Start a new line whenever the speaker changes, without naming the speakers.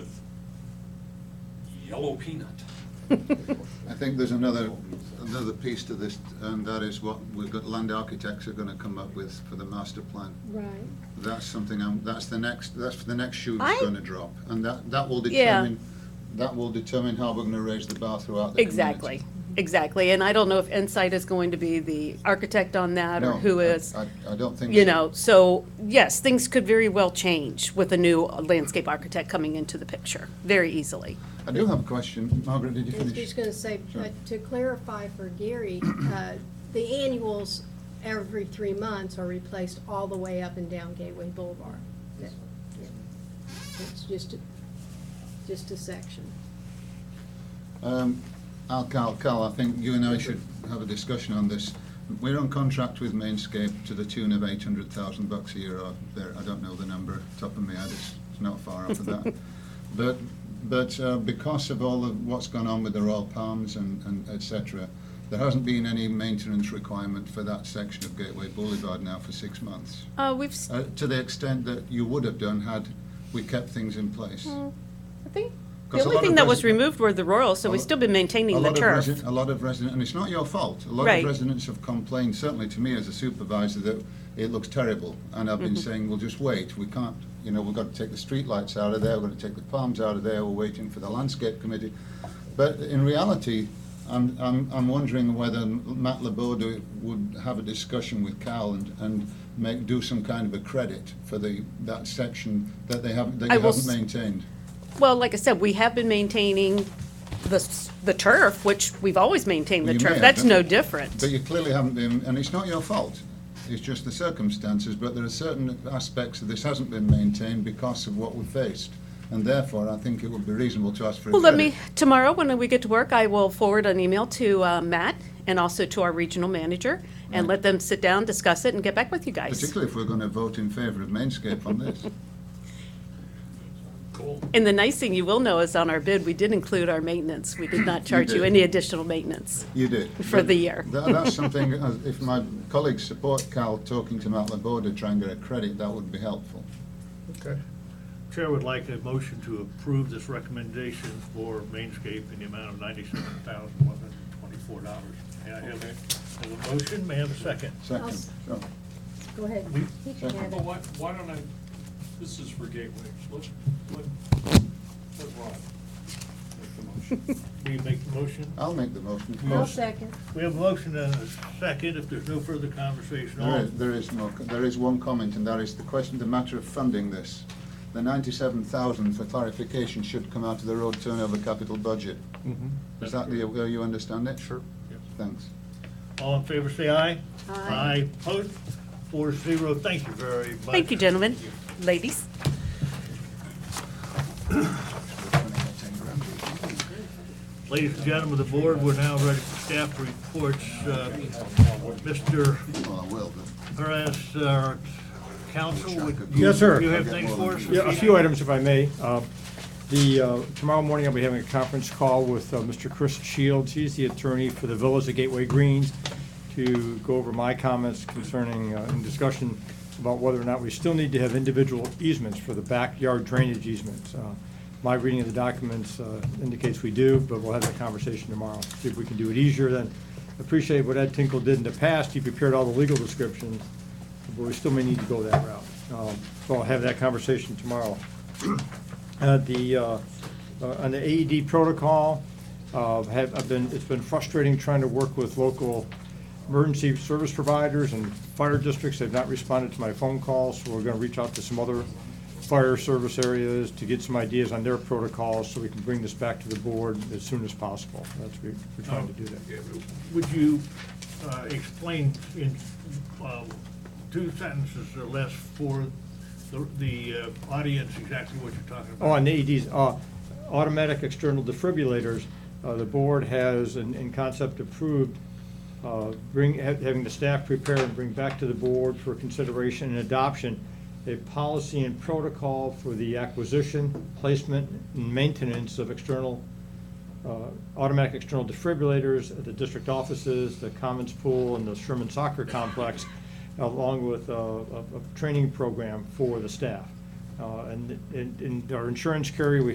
yellow peanut.
I think there's another, another piece to this, and that is what we've got, land architects are gonna come up with for the master plan.
Right.
That's something, I'm- that's the next, that's the next shoe
I-
that's gonna drop, and that, that will
Yeah.
determine, that will determine how we're gonna raise the bar throughout the community.
Exactly, exactly. And I don't know if Insight is going to be the architect on that or
No,
who
I-
is.
I, I don't think.
You
so.
know, so yes, things could very well change with a new landscape architect coming into the picture, very easily.
I do have a question, Margaret, did you
I was just
finish?
gonna say,
Sure.
uh, to clarify for Gary, uh, the annuals every three months are replaced all the way up and down Gateway Boulevard. Yeah. It's just, a- just a section.
Um, Al, Cal, Cal, I think you and I should have a discussion on this. We're on contract with Mainscape to the tune of eight hundred thousand bucks a year, or there, I don't know the number, top of my head, it's, it's not far off of that. But, but, uh, because of all of what's gone on with the Royal Palms and, and et cetera, there hasn't been any maintenance requirement for that section of Gateway Boulevard now for six months.
Uh, we've, s-
Uh, to the extent that you would have done had we kept things in place.
I think, the
'Cause a
only
lot
thing
of
that was
resi-
removed were the Royals, so
a
we've
lo-
still been
a
maintaining the
lot of
turf.
resi- A lot of residents, and it's not your fault, a lot
Right.
of residents have complained, certainly to me as a supervisor, that it looks terrible. And I've
Mm-hmm.
been saying, well, just wait, we can't, you know, we've got to take the streetlights out of there, we're going to take the palms out of there, we're waiting for the landscape committee. But in reality, I'm, I'm, I'm wondering whether Matt Laborda would have a discussion with Cal and, and make, do some kind of a credit for the, that section that they haven't, that
I
you
will s-
haven't maintained.
Well, like I said, we have been maintaining the, s- the turf, which we've always maintained
Well,
the
you may
turf.
have,
That's
but-
no different.
But you clearly haven't been, and it's not your fault. It's just the circumstances, but there are certain aspects of this hasn't been maintained because of what we faced. And therefore, I think it would be reasonable to ask for a
Well, let me,
credit.
tomorrow, when we get to work, I will forward an email to uh, Matt and also to our regional manager
Mm-hmm.
and let them sit down, discuss it, and get back with you guys.
Particularly if we're going to vote in favour of Mainscape on this.
Cool.
And the nice thing you will know is on our bid, we did include our maintenance. We did not charge you
did.
any additional maintenance.
You did.
For
But
the year.
tha- That's something, uh, if my colleagues support Cal talking to Matt Laborde to try and get a credit, that would be helpful.
Okay. Chair would like a motion to approve this recommendation for Mainscape in the amount of ninety-seven thousand, one hundred and twenty-four dollars. May I have a, have a motion, may I have a second?
Second.
s-
So,
Go ahead.
We-
He can have
Well,
it.
why, why don't I, this is for Gateway, let, let, let Rod make the motion.
We make the motion?
I'll make the motion.
I'll second.
We have a motion and a second, if there's no further conversation,
There
all,
is, there is more, there is one comment, and that is the question, the matter of funding this. The ninety-seven thousand, for clarification, should come out of the road turnover capital budget. Is that the, uh, you understand it? Sure.
Yes.
Thanks.
all in favor, say aye.
Aye.
Aye, opposed, four zero, thank you very much.
Thank you, gentlemen, ladies.
Ladies and gentlemen of the board, we're now ready for staff reports. Uh, Mr.
Well, I will,
Perez, our counsel, uh, would you?
Yes, sir.
You have things for us?
Yeah, a few items, if I may. Uh, The, uh, tomorrow morning, I'll be having a conference call with uh, Mr. Chris Shields. He's the attorney for the Villas of Gateway Greens to go over my comments concerning, uh, and discussion about whether or not we still need to have individual easements for the backyard drainage easements. Uh, My reading of the documents uh, indicates we do, but we'll have that conversation tomorrow, see if we can do it easier then. Appreciate what Ed Tinkle did in the past. He prepared all the legal descriptions but we still may need to go that route. Um, So I'll have that conversation tomorrow. Uh, The, uh, uh, on the AED protocol, uh, have, I've been, it's been frustrating trying to work with local emergency service providers and fire districts. They've not responded to my phone calls, so we're gonna reach out to some other fire service areas to get some ideas on their protocols, so we can bring this back to the board as soon as possible. That's, what we're trying to do that.
Would you uh, explain in uh, two sentences or less for the- the uh, audience exactly what you're talking about?
Oh, on the AEDs, uh, automatic external defibrillators, uh, the board has, in, in concept approved, uh, bring, ha- having the staff prepare and bring back to the board for consideration and adoption, a policy and protocol for the acquisition, placement, and maintenance of external, uh, automatic external defibrillators at the district offices, the Commons Pool, and the Sherman Soccer Complex, along with uh, a, a training program for the staff. Uh, And, and- and our insurance carrier, we